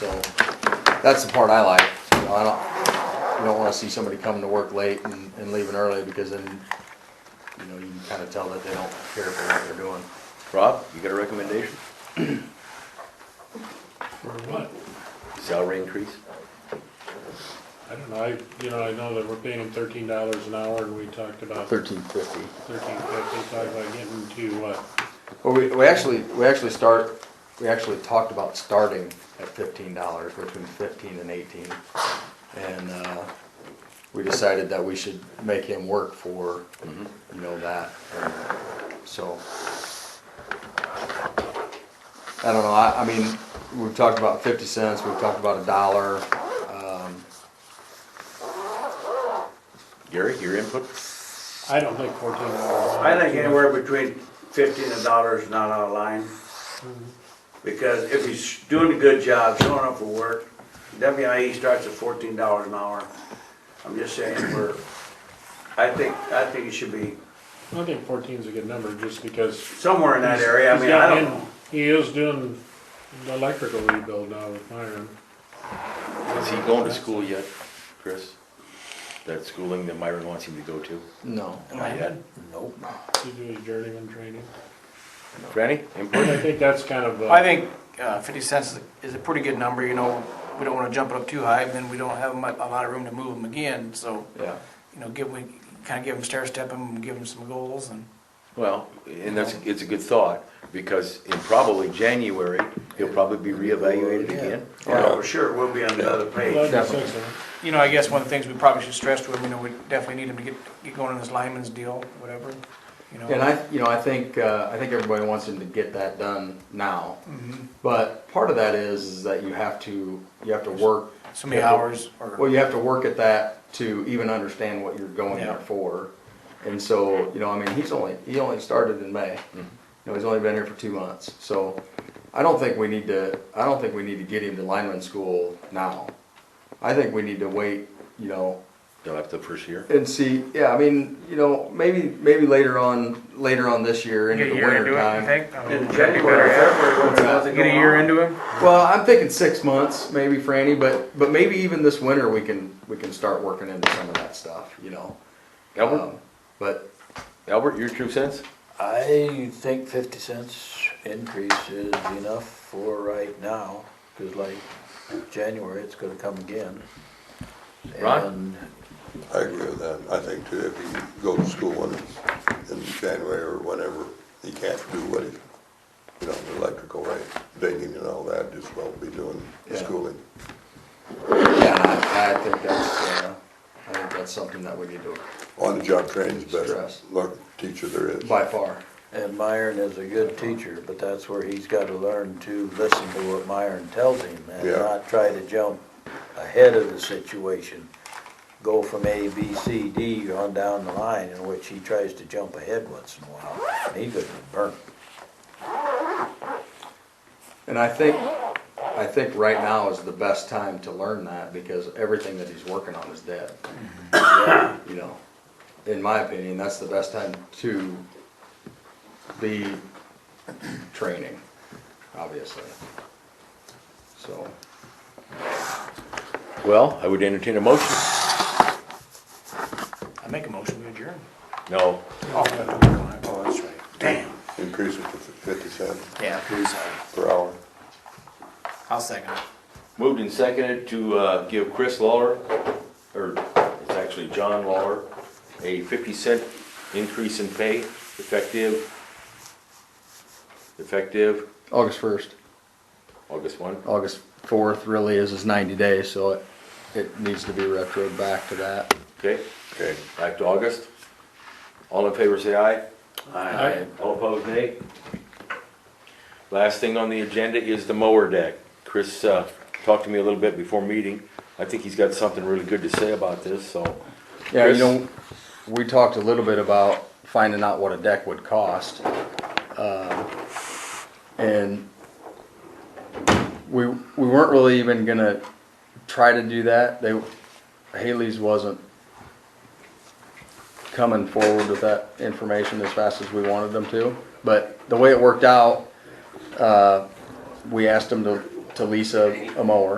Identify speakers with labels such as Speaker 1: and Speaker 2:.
Speaker 1: So, that's the part I like, you know, I don't, you don't wanna see somebody coming to work late and, and leaving early, because then, you know, you can kinda tell that they don't care for what they're doing.
Speaker 2: Rob, you got a recommendation?
Speaker 3: For what?
Speaker 2: Salary increase?
Speaker 3: I don't know, I, you know, I know that we're paying them thirteen dollars an hour and we talked about thirteen
Speaker 2: Thirteen fifty.
Speaker 3: fifty, talked about getting to uh, what?
Speaker 1: Well, we, we actually, we actually start, we actually talked about starting at fifteen dollars, between fifteen and eighteen. And, uh, we decided that we should make him work for, you know, that, and so. I don't know, I, I mean, we've talked about fifty cents, we've talked about a dollar, um,
Speaker 2: Gary, your input?
Speaker 3: I don't think fourteen dollars.
Speaker 4: I think anywhere between fifteen and dollars is not out of line. Because if he's doing a good job, showing up for work, WIE starts at fourteen dollars an hour. I'm just saying, we're, I think, I think it should be
Speaker 3: I think fourteen's a good number just because.
Speaker 4: somewhere in that area, I
Speaker 3: he's
Speaker 4: mean, I
Speaker 3: got
Speaker 4: don't
Speaker 3: in-
Speaker 4: know.
Speaker 3: He is doing the electrical rebuild now with Myron.
Speaker 2: Is he going to school yet, Chris? That schooling that Myron wants him to go to?
Speaker 1: no.
Speaker 2: Not yet.
Speaker 1: Nope.
Speaker 3: He do his journeyman training.
Speaker 2: Franny, input?
Speaker 3: I think that's kind of,
Speaker 5: I
Speaker 3: uh,
Speaker 5: think uh, 50 cents is a- is a pretty good number, you know, we don't want to jump it up too high, then we don't have mu- a lot of room to move them again, so,
Speaker 1: Yeah,
Speaker 5: you know, give, we kind of give them stair step them, give them some goals and.
Speaker 2: Well, and that's, it's a good thought, because in probably January, he'll probably be reevaluated again.
Speaker 4: Yeah, for sure, we'll be on the other page.
Speaker 3: eleven six of them.
Speaker 5: You know, I guess one of the things we probably should stress to them, you know, we definitely need them to get, get going on this lineman's deal, whatever, you know.
Speaker 1: And I, you know, I think, uh, I think everybody wants him to get that done now.
Speaker 5: Mm-hmm.
Speaker 1: But part of that is, is that you have to, you have to work.
Speaker 5: So many
Speaker 1: you have to-
Speaker 5: hours or-
Speaker 1: Well, you have to work at that to even understand what you're going
Speaker 5: Yeah.
Speaker 1: there for. And so, you know, I mean, he's only, he only started in May.
Speaker 5: Mm-hmm.
Speaker 1: You know, he's only been here for two months. So I don't think we need to, I don't think we need to get him to lineman school now. I think we need to wait, you know,
Speaker 2: Till after the first year?
Speaker 1: and see, yeah, I mean, you know, maybe, maybe later on, later on this year into
Speaker 5: Get
Speaker 1: the
Speaker 5: a year
Speaker 1: winter
Speaker 5: into it, you
Speaker 1: time.
Speaker 5: think?
Speaker 4: In
Speaker 5: That'd be
Speaker 4: January,
Speaker 5: better,
Speaker 4: February, when there's
Speaker 5: yeah.
Speaker 4: nothing
Speaker 5: Get a
Speaker 4: going
Speaker 5: year
Speaker 4: on.
Speaker 5: into him?
Speaker 1: Well, I'm thinking six months, maybe Franny, but, but maybe even this winter, we can, we can start working into some of that stuff, you know?
Speaker 2: Albert,
Speaker 1: Um, But,
Speaker 2: Albert, your two cents?
Speaker 6: I think fifty cents increase is enough for right now, cause like January, it's gonna come again.
Speaker 2: Ron?
Speaker 7: I agree with that. I think too, if he goes to school in, in January or whenever, he can't do what he, you know, the electrical, right? Digging and all that, just won't be doing the
Speaker 1: Yeah.
Speaker 7: schooling.
Speaker 1: yeah, I, I think that's, uh, I think that's something that we need to,
Speaker 7: On-the-job training's best,
Speaker 1: Stress.
Speaker 7: learn, teacher there is.
Speaker 1: by far.
Speaker 6: And, and Myron is a good teacher, but that's where he's gotta learn to listen to what Myron tells him and
Speaker 7: Yeah.
Speaker 6: not try to jump ahead of the situation. Go from A, B, C, D on down the line, in which he tries to jump ahead once in a while, and he could burn.
Speaker 1: And I think, I think right now is the best time to learn that because everything that he's working on is dead. You know, in my opinion, that's the best time to be training, obviously. So,
Speaker 2: Well, I would entertain a motion.
Speaker 5: I make a motion, we adjourn.
Speaker 2: No,
Speaker 5: Oh, that's right. Damn.
Speaker 7: Increase it to fifty cents
Speaker 5: Yeah, please,
Speaker 7: per hour.
Speaker 5: I'll second it.
Speaker 2: Moved and seconded to uh, give Chris Lawler, or it's actually John Lawler, a 50 cent increase in pay effective, effective
Speaker 1: August first,
Speaker 2: August 1.
Speaker 1: August fourth really is his ninety days, so it, it needs to be retroed back to that.
Speaker 2: Okay,
Speaker 7: Okay,
Speaker 2: back to August. All in favor, say aye.
Speaker 3: Aye.
Speaker 2: All opposed, nay. Last thing on the agenda is the mower deck. Chris uh, talked to me a little bit before meeting. I think he's got something really good to say about this, so.
Speaker 1: Yeah, you
Speaker 2: Chris?
Speaker 1: know, we talked a little bit about finding out what a deck would cost. um, And we, we weren't really even gonna try to do that. They, Haley's wasn't coming forward with that information as fast as we wanted them to. But the way it worked out, uh, we asked them to to lease a, a mower.